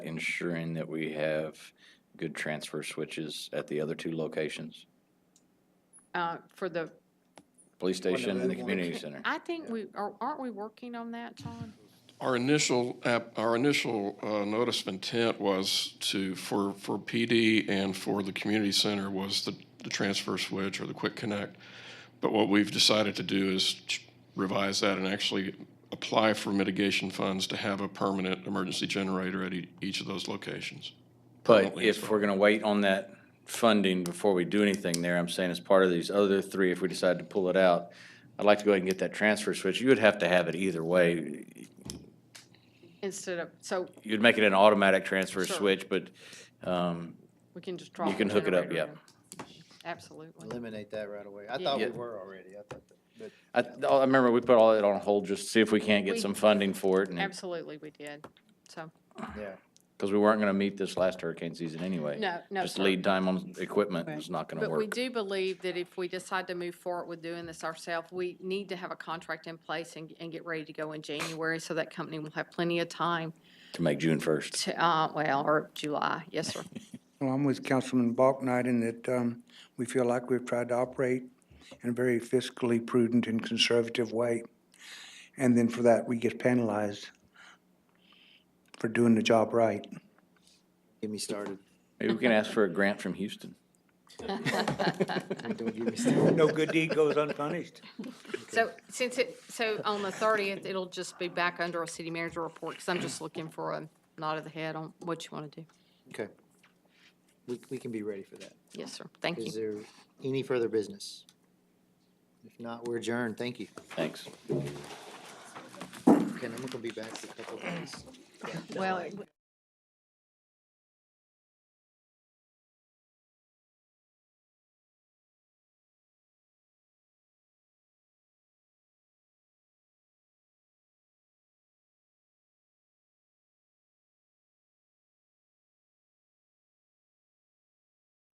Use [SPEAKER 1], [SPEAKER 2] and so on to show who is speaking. [SPEAKER 1] ensuring that we have good transfer switches at the other two locations,
[SPEAKER 2] uh, for the,
[SPEAKER 1] police station and the
[SPEAKER 3] Wonderful.
[SPEAKER 1] community center.
[SPEAKER 2] I think we, are- aren't we working on that, Tom?
[SPEAKER 4] Our initial, app- our initial uh, notice of intent was to, for, for PD and for the community center was the, the transfer switch or the quick connect. But what we've decided to do is ch- revise that and actually apply for mitigation funds to have a permanent emergency generator at ea- each of those locations.
[SPEAKER 1] But if we're gonna wait on that funding before we do anything there, I'm saying as part of these other three, if we decide to pull it out, I'd like to go ahead and get that transfer switch. You would have to have it either way.
[SPEAKER 2] Instead of, so
[SPEAKER 1] You'd make it an automatic transfer
[SPEAKER 2] Sure.
[SPEAKER 1] switch, but, um,
[SPEAKER 2] we can just drop.
[SPEAKER 1] You can
[SPEAKER 2] the
[SPEAKER 1] hook it up,
[SPEAKER 2] generator in. Absolutely.
[SPEAKER 3] Eliminate that right away. I thought
[SPEAKER 1] Yeah.
[SPEAKER 3] we were already. I thought that, but
[SPEAKER 1] I, I remember we put all that on hold just to see if we can't get
[SPEAKER 2] We-
[SPEAKER 1] some funding for it and,
[SPEAKER 2] Absolutely, we did. So,
[SPEAKER 3] yeah.
[SPEAKER 1] because we weren't gonna meet this last hurricane season anyway.
[SPEAKER 2] no, no,
[SPEAKER 1] Just
[SPEAKER 2] sir.
[SPEAKER 1] lead time on equipment
[SPEAKER 2] Right.
[SPEAKER 1] was not gonna
[SPEAKER 2] But we
[SPEAKER 1] work.
[SPEAKER 2] do believe that if we decide to move forward with doing this ourselves, we need to have a contract in place and, and get ready to go in January, so that company will have plenty of time
[SPEAKER 1] To make June first.
[SPEAKER 2] to, uh, well, or July, yes, sir.
[SPEAKER 5] Well, I'm with Councilman Balknight in that um, we feel like we've tried to operate in a very fiscally prudent and conservative way. And then for that, we get penalized for doing the job right.
[SPEAKER 3] Get me started.
[SPEAKER 1] Maybe we can ask for a grant from Houston.
[SPEAKER 3] Don't get me started.
[SPEAKER 5] No good deed goes unpunished.
[SPEAKER 2] So since it, so on the thirtieth, it'll just be back under a city manager report, because I'm just looking for a nod of the head on what you want to do.
[SPEAKER 3] Okay. We, we can be ready for that.
[SPEAKER 2] Yes, sir. Thank you.
[SPEAKER 3] Is there any further business? If not, we're adjourned. Thank you.
[SPEAKER 1] Thanks.
[SPEAKER 3] Ken, I'm gonna be back for a couple of days.
[SPEAKER 2] Well,